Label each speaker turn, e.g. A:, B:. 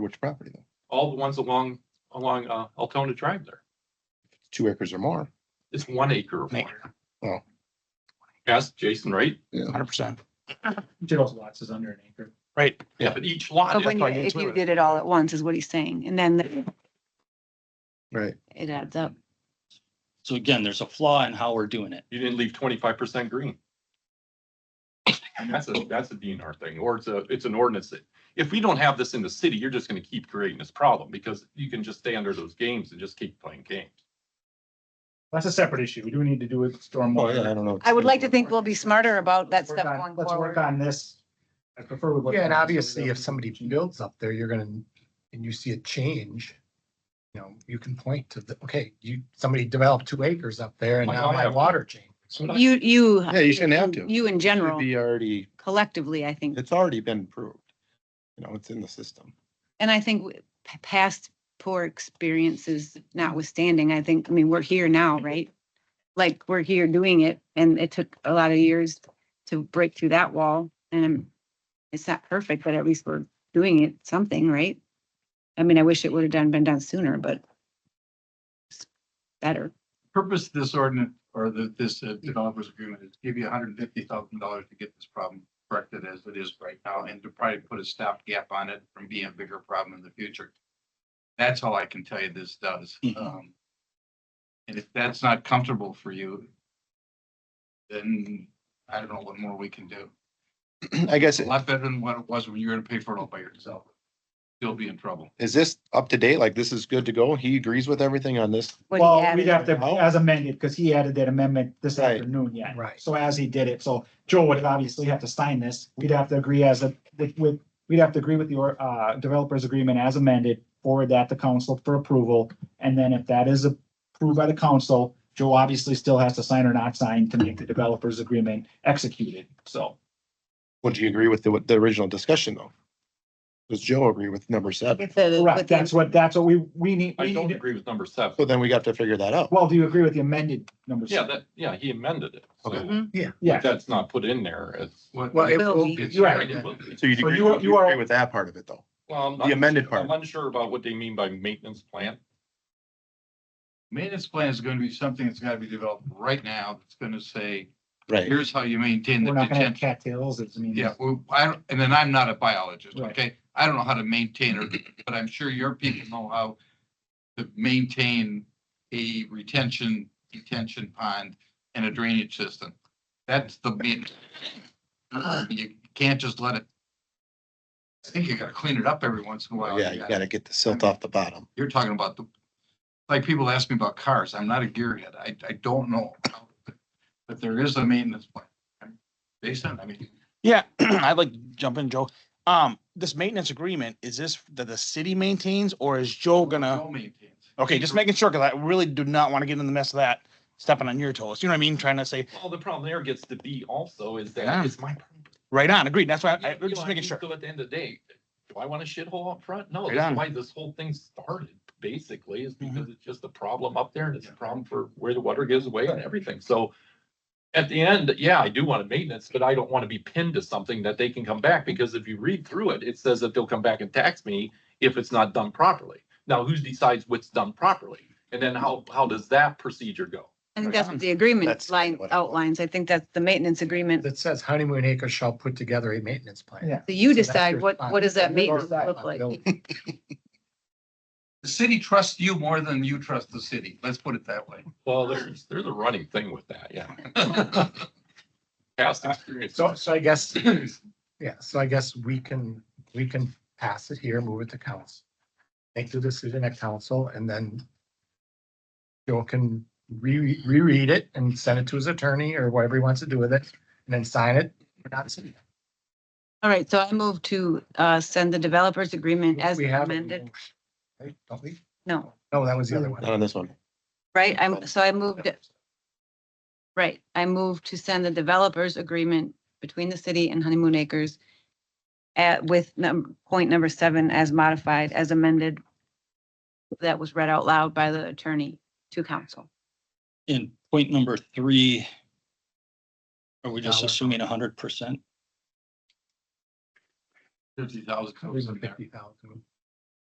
A: Which property though?
B: all the ones along, along, uh, Altona Drive there.
A: Two acres or more?
B: It's one acre or more.
A: Oh.
B: Yes, Jason, right?
A: Yeah.
C: Hundred percent,
D: General's lots is under an acre.
C: right.
B: Yeah, but each lot.
E: But when, you-
C: why it's
E: if you
C: limited.
E: did it all at once is what he's saying, and then
A: Right.
E: it adds up.
F: So again, there's a flaw in how we're doing it.
B: You didn't leave twenty-five percent green. And that's a, that's a DNR thing, or it's a, it's an ordinance that, if we don't have this in the city, you're just gonna keep creating this problem because you can just stay under those games and just keep playing games.
D: That's a separate issue. We do need to do with stormwater.
A: don't know.
E: I would like to think we'll be smarter about that
D: Let's work
E: stuff
D: on-
E: going
D: Let's work
E: forward.
D: on this. I prefer we. work
G: Yeah, and
D: on this.
G: obviously, if somebody builds up there, you're gonna, and you see a change. You know, you can point to the, okay, you, somebody developed two acres up there and
B: Might
G: now
B: not
G: my
B: have to.
G: water changed.
E: You, you.
A: Yeah, you shouldn't have to.
E: You in
A: It'd
E: general,
A: be already,
E: collectively, I think,
A: it's already been approved. You know, it's in the system.
E: and I think w- p- past poor experiences notwithstanding, I think, I mean, we're here now, right? Like, we're here doing it, and it took a lot of years to break through that wall, and it's not perfect, but at least we're doing it, something, right? I mean, I wish it would have done, been done sooner, but it's better.
H: purpose of this ordinance or the, this uh, developers agreement is to give you hundred and fifty thousand dollars to get this problem corrected as it is right now and to probably put a stopgap on it from being a bigger problem in the future. That's all I can tell you this does.
D: Hmm.
F: Mhm.
H: Um, And if that's not comfortable for you, then I don't know what more we can do.
A: I guess,
H: A lot better than what it was when you were to pay for it all by yourself. You'll be in trouble.
A: is this up to date? Like this is good to go? He agrees with everything on this?
E: what he
D: Well,
E: added.
D: we'd have to,
A: Oh.
D: as amended, because he added that amendment this
A: Right.
D: afternoon yet.
G: Right.
D: So as he did it, so Joe would obviously have to sign this. We'd have to agree as a, with, with, we'd have to agree with your, uh, developers agreement as amended, forward that to council for approval. And then if that is approved by the council, Joe obviously still has to sign or not sign to make the developers agreement executed, so.
A: Would you agree with the, with the original discussion though? Does Joe agree with number seven?
E: With the-
D: Correct,
E: with the-
D: that's what, that's what we, we need.
B: I
D: we
B: don't
D: need-
B: agree with number seven.
A: So then we got to figure that out.
D: Well, do you agree with the amended number?
B: Yeah,
D: seven?
B: that, yeah, he amended it. So
A: Okay.
E: Mhm.
D: Yeah,
B: That's not put in there. It's.
H: What-
G: Well, it
E: Will
G: will
E: be.
G: be.
D: You're right.
G: Yeah.
A: So you'd
D: So
A: agree,
D: you are- you
A: you
D: are-
A: agree with that part of it though?
B: Well, I'm
A: The
B: not-
A: amended part.
B: I'm unsure about what they mean by maintenance plan.
H: Maintenance plan is going to be something that's got to be developed right now. That's going to say,
A: Right.
H: here's how you maintain the
D: we're not gonna
H: detention.
D: have cattails, it's, I mean.
H: Yeah, well, I, don't- and then I'm not a biologist,
D: Right.
H: okay? I don't know how to maintain it, but I'm sure your people know how to maintain a retention, detention pond and a drainage system. That's the main. You can't just let it. I think you gotta clean it up every once in a while.
A: Yeah, you gotta get the silt off the bottom.
H: You're talking about the, like, people ask me about cars. I'm not a gearhead. I, I don't know. But there is a maintenance plan. Jason, I mean,
C: Yeah, I'd like to jump in, Joe. Um, this maintenance agreement, is this that the city maintains or is Joe gonna?
H: no maintenance.
C: Okay, just making sure, cause I really do not want to get in the mess of that, stepping on your toes, you know what I mean? Trying to say,
B: Well, the problem there gets to be also is
C: Yeah.
B: that it's my. property.
C: right on, agreed, that's why I,
B: You
C: I'm
B: know,
C: just
B: I
C: making
B: mean,
C: sure.
B: So at the end of the day, do I want a shithole up front? No,
C: Right
B: that's
C: on.
B: why this whole thing started, basically, is
C: Mm-hmm.
B: because it's just a problem up there and it's a problem for where the water gives away and everything, so. At the end, yeah, I do want a maintenance, but I don't want to be pinned to something that they can come back,
C: Mm-hmm.
B: because if you read through it, it says that they'll come back and tax me if it's not done properly. Now, who decides what's done properly? And then how, how does that procedure go?
E: I think that's what the agreement
A: That's
E: line
A: what I-
E: outlines. I think that's the maintenance agreement.
G: That says honeymoon acres shall put together a maintenance plan.
D: Yeah.
E: So you
G: So that's
E: decide
G: your
E: what, what does that maintenance
G: responsibility.
E: look like?
H: The city trusts you more than you trust the city. Let's put it that way.
B: Well, there's, there's a running thing with that, yeah. Past experience.
G: So, so I guess, yeah, so I guess we can, we can pass it here, move it to council. Make the decision at council and then Joe can re, reread it and send it to his attorney or whatever he wants to do with it and then sign it. We're not signing it.
E: All right, so I move to uh, send the developers agreement as
G: We have it.
E: amended.
G: Right, don't we?
E: No,
G: No, that was the other one.
A: Not on this one.
E: right?
G: Oh.
E: I'm, so I moved, it- right, I moved to send the developers agreement between the city and Honeymoon Acres at, with num, point number seven as modified, as amended. That was read out loud by the attorney to council.
F: In point number three, are we just
G: Dollar amount.
F: assuming hundred percent?
H: Fifty thousand.
G: It was a 50,000.